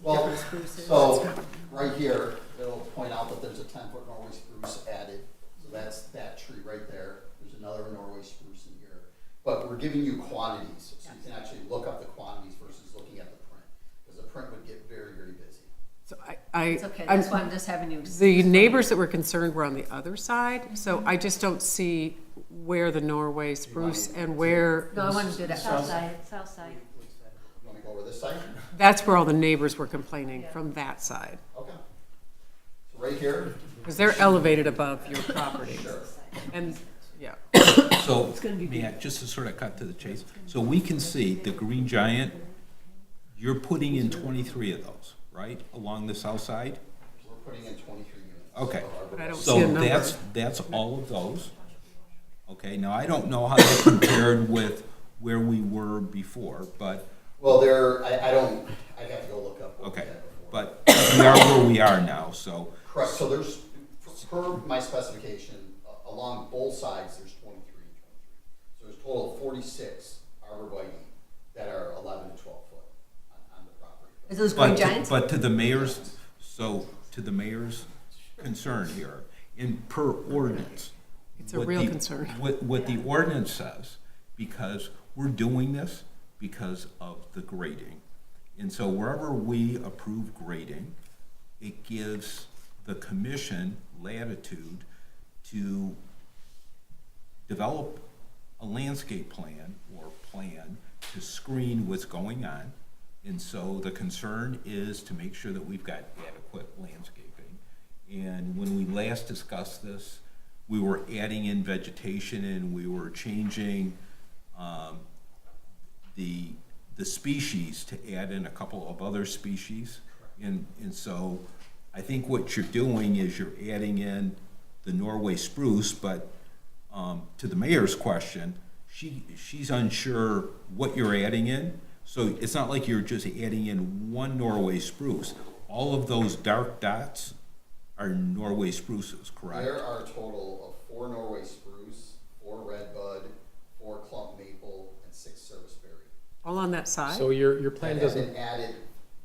Well, different spruces. so, right here, it'll point out that there's a ten-foot Norway spruce added. So that's that tree right there. There's another Norway spruce in here. But we're giving you quantities, so you can actually look up the quantities versus looking at the print. Because the print would get very, very busy. So I, I. It's okay, I'm- that's why I'm just Mm-hmm. having you. The neighbors that were concerned were on the other side, so I just don't see where the Norway spruce and where, No, I wanted to do that. South side, south side. You wanna go over this side? that's where all the neighbors were complaining, from that side. Okay. So right here, Because they're elevated above your property. sure. And, yeah, So, may I, just to sort of cut to the chase, so we can see the Green Giant, you're putting in twenty-three of those, right, along the south side? We're putting in twenty-three units. Okay. So but I our- don't So see a number. that's, that's all of those. Okay, now I don't know how that compared with where we were before, but, Well, there, I, I don't, I'd have to go look up. what we okay, had before. but we are where we are now, so, Correct, so there's, per my specification, a- along both sides, there's twenty-three and twenty-three. So there's a total of forty-six arborvitae that are eleven to twelve foot on, on the property. Is those green but, giants? but to the mayor's, so, to the mayor's concern here, in per ordinance. It's a what real the- concern. What, what the ordinance says, because we're doing this because of the grading. And so wherever we approve grading, it gives the commission latitude to develop a landscape plan or plan to screen what's going on. And so the concern is to make sure that we've got adequate landscaping. And when we last discussed this, we were adding in vegetation and we were changing um, the, the species to add in a couple of other species. And, and so I think what you're doing is you're adding in the Norway spruce, but um, to the mayor's question, she, she's unsure what you're adding in. So it's not like you're just adding in one Norway spruce. All of those dark dots are Norway spruces, correct? There are a total of four Norway spruce, four red bud, four clump maple, and six service berry. all on that side? So your, your That plan have doesn't, been added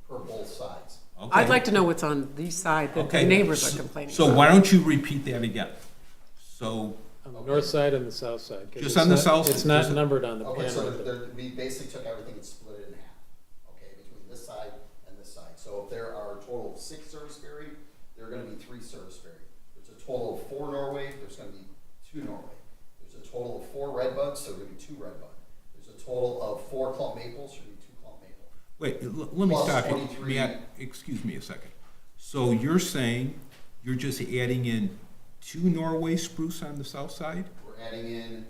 per both sides. Okay. I'd like to know what's on the side that the Okay, neighbors so- are complaining So about. why don't you repeat that again? So, on the north side and the south side. 'cause Just it's on the not- south- Oh, It's not just- numbered on the Okay, so plan. there, we basically took everything and split it in half, okay, between this side and this side. So if there are a total of six service berry, there are gonna be three service berry. There's a total of four Norway, there's gonna be two Norway. There's a total of four red buds, so there're gonna be two red bud. There's a total of four clump maples, so there'll be two clump maple. wait, l- let me Plus stop you. 23. May I- excuse me a second. So you're saying you're just adding in two Norway spruce on the south side? We're adding in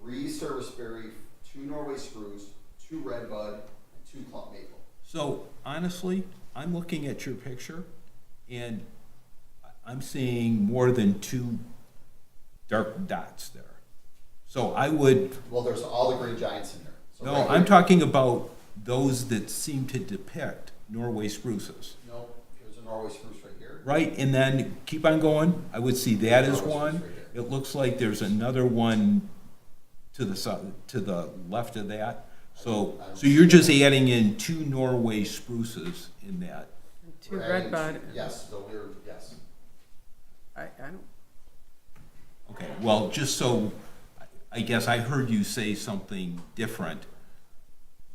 three service berry, two Norway spruce, two red bud, and two clump maple. So honestly, I'm looking at your picture and I- I'm seeing more than two dark dots there. So I would, Well, there's all the green giants in there. So no, right I'm here- talking about those that seem to depict Norway spruces. No, there's a Norway spruce right here. Right, and then keep on going, I would see that as Oh, it's one. right there. It looks like there's another one to the south, to the left of that. So, I don't- so you're just adding in two Norway spruces in that. Two We're red adding bud. two- Yes, so we're, yes. I, I don't, Okay, well, just so, I- I guess I heard you say something different,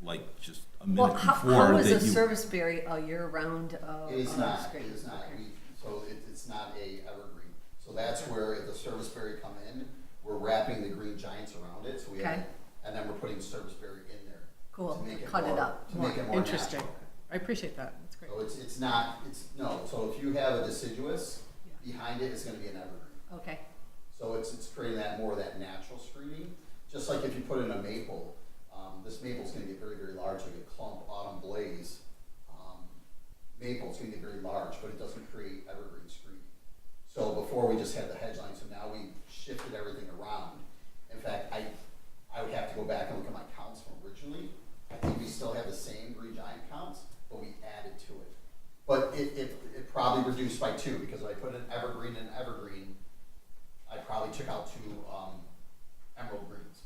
like just a Well, minute how, how before is a that you. service berry a year-round, uh? It is uh, not, it screen? is not, Okay. we, so it, it's not a evergreen. So that's where if the service berry come in, we're wrapping the green giants around it, so we have, Okay. it, and then we're putting service berry in there. Cool, to make cut it more- up. To make it more interesting. natural. I appreciate that, that's great. So it's, it's not, it's, no, so if you have a deciduous, behind it is gonna be an evergreen. Okay, So it's, it's creating that more of that natural screening, just like if you put in a maple, um, this maple's gonna get very, very large, like a clump autumn blaze. um, Maple's gonna get very large, but it doesn't create evergreen screening. So before we just had the hedge line, so now we shifted everything around. In fact, I, I would have to go back and look at my counts from originally. I think we still have the same green giant counts, but we added to it. But it, it, it probably reduced by two, because if I put an evergreen and evergreen, I probably took out two um, emerald greens.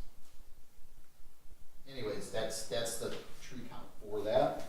Anyways, that's that's the tree count for that.